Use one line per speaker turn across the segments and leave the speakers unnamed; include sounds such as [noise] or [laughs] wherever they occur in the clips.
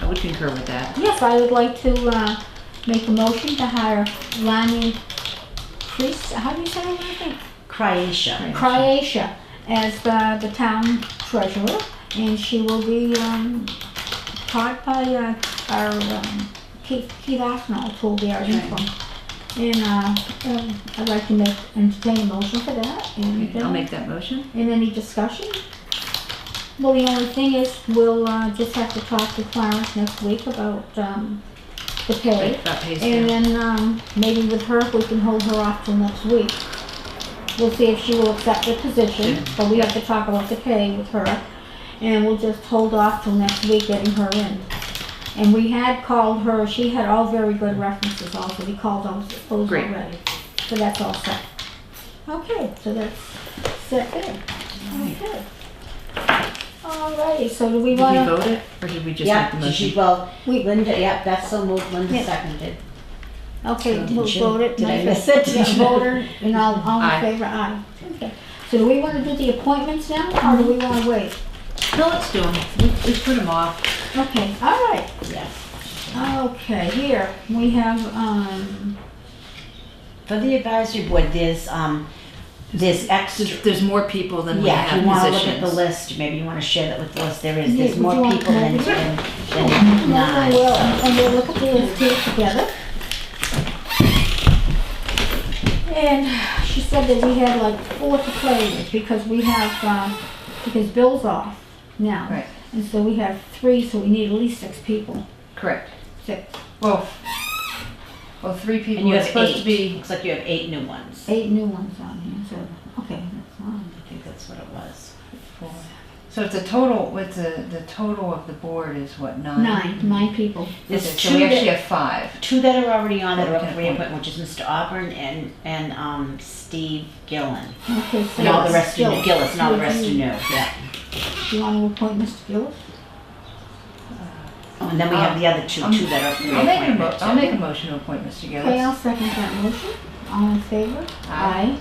I would concur with that.
Yes, I would like to, uh, make a motion to hire Lani Kreis, how do you say her last name?
Croatia.
Croatia as uh, the town treasurer, and she will be um, taught by uh, our um, Keith, Keith Aspinall, who will be our interim. And uh, um, I'd like to make entertain a motion for that. And,
Okay, I'll
uh,
make that motion.
and any discussion? Well, the only thing is, we'll uh, just have to talk to Clarence next week about um, the pay.
Like that pays
uh,
And
down.
then, um, maybe with her, if we can hold her off till next week. We'll see if she will accept the position, but we have to talk about the pay with her. And we'll just hold off till next week getting her in. And we had called her, she had all very good references also, we called those, those
Great.
already. So that's all set. Okay, so that's set there. Okay. Alrighty, so do we
Did we
wanna,
vote it, or did we just make
Yeah,
the
did she,
motion?
well,
we,
Linda, yeah, that's so moved, Linda
Yeah.
seconded.
okay,
Did
we'll
you-
vote it.
Did I
Nice.
miss it? [laughs]
Yeah, voter, and all, all in
Aye.
favor, aye. Okay. So do we wanna do the appointments now, or do we wanna wait?
No, let's do them. We, we put them off.
Okay, all right,
Yes.
okay, here, we have, um,
For the advisory board, there's, um, there's extra.
There's, there's more people than we
Yeah, if
have
you wanna look at the
positions.
list, maybe you wanna share that with the list, there is,
Yeah,
there's
would
more
you want
people than,
more?
than than nine,
and we'll,
so.
and we'll look at the list here together. And she said that we had like four to play with, because we have, um, because Bill's off now.
Right.
And so we have three, so we need at least six people,
Correct.
six,
Well, well, three people.
And you
It's
have
supposed to
eight,
be.
looks like you have eight new ones, I
eight new ones on here, so, okay, that's fine.
think that's what it was.
So it's a total, with the, the total of the board is what, nine?
Nine, nine people.
Okay,
There's
so we
two
actually
that,
have five.
two that are already on that are up
Okay.
for reappointment, which is Mr. Auburn and, and, um, Steve Gillen.
Okay, so.
And all the rest are
Gillis.
new, Gillis, and all the
You-
rest are new,
you-
yeah.
You want to appoint Mr. Gillis?
Oh, And then we have the other two,
Um,
two that are up
I'll
for
make a mo,
reappointment.
I'll make a motion to appoint Mr.
Okay, I'll
Gillis.
second that motion. All in favor?
Aye.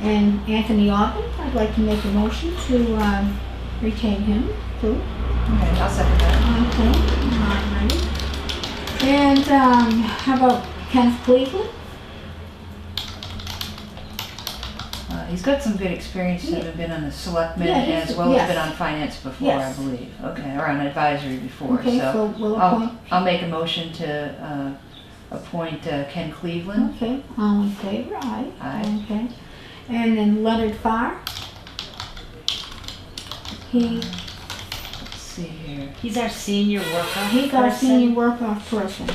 And Anthony Ogden, I'd like to make a motion to um, retain him too.
Okay, I'll second that.
Okay, all righty. And um, how about Kenneth Cleveland?
Uh, he's got some good experience,
Yeah.
having been on the selectmen
Yeah, he's-
as well as
yes.
been on finance before, I
Yes.
believe. Okay, or on advisory before,
Okay,
so. Oh.
so we'll appoint.
I'll, I'll make a motion to, uh, appoint uh, Ken Cleveland.
Okay, all in favor? Aye.
Aye.
Okay. And then Leonard Farr? He,
Let's see here.
He's our senior worker
he's our
person.
senior work off person.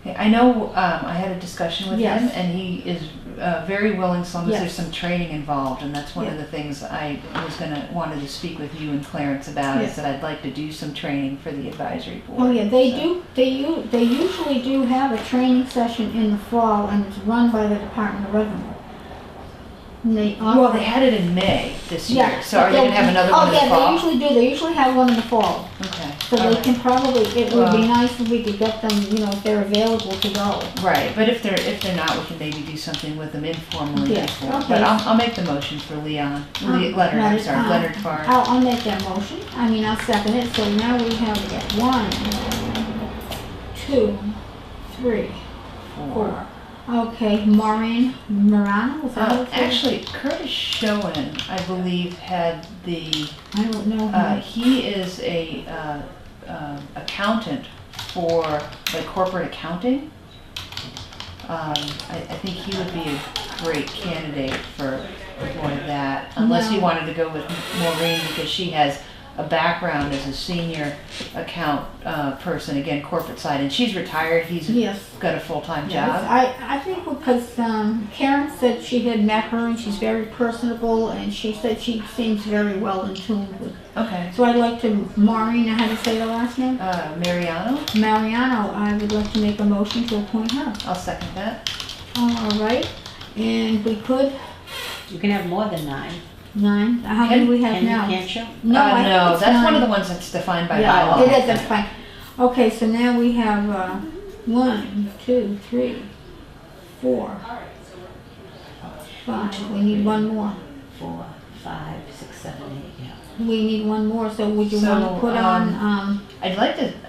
Okay, I know, um, I had a discussion with him
Yes.
and he is, uh, very willing, so long as
Yes.
there's some training involved. And that's one of
Yeah.
the things I was gonna, wanted to speak with you and Clarence about,
Yes.
is that I'd like to do some training for the advisory board.
Oh yeah, they
so.
do, they u, they usually do have a training session in the fall and it's run by the Department of Revenue. And they
Well, they
offer.
had it in May this year,
Yeah,
so are they gonna have another
oh,
one in the
yeah, they
fall?
usually do, they usually have one in the fall,
Okay.
so
all
they
right.
can probably, it would be
Well-
nice if we could get them, you know, if they're available to go.
Right, but if they're, if they're not, we can maybe do something with them informally
Yeah,
before.
okay.
But I'll, I'll make the motion for Leon, Le-
Um,
Leonard, I'm
Leonard,
sorry,
um,
Leonard Farr.
I'll, I'll make that motion, I mean, I'll second it, so now we have that one, two, three, four. Okay, Maureen Morano, is that
Uh,
what it's
actually, Curtis Schoen, I believe, had the,
called? I don't know. her.
uh, he is a, uh, um, accountant for, like, corporate accounting. Um, I, I think he would be a great candidate for, for that, unless you
No.
wanted to go with Maureen, because she has a background as a senior account, uh, person, again, corporate side, and she's retired, he's
Yes.
got a full-time
Yes,
job.
I, I think because um, Karen said she had met her and she's very personable and she said she seems very well in tune with.
Okay,
So I'd like to, Maureen, how do you say the last name?
uh, Mariano,
Mariano, I would like to make a motion to appoint her.
I'll second that.
All right, and we could,
You can have more than nine.
nine, how many we have
Can you,
now?
can't you?
No,
uh,
I think
no
it's
that's one of
nine.
the ones that's defined by
Yeah,
bylaw.
It is, that's fine. Okay, so now we have, uh, one, two, three, four, five, we need one more.
Four, five, six, seven, eight, yeah.
We need one more, so would you
So,
wanna put on,
um,
um,
I'd like to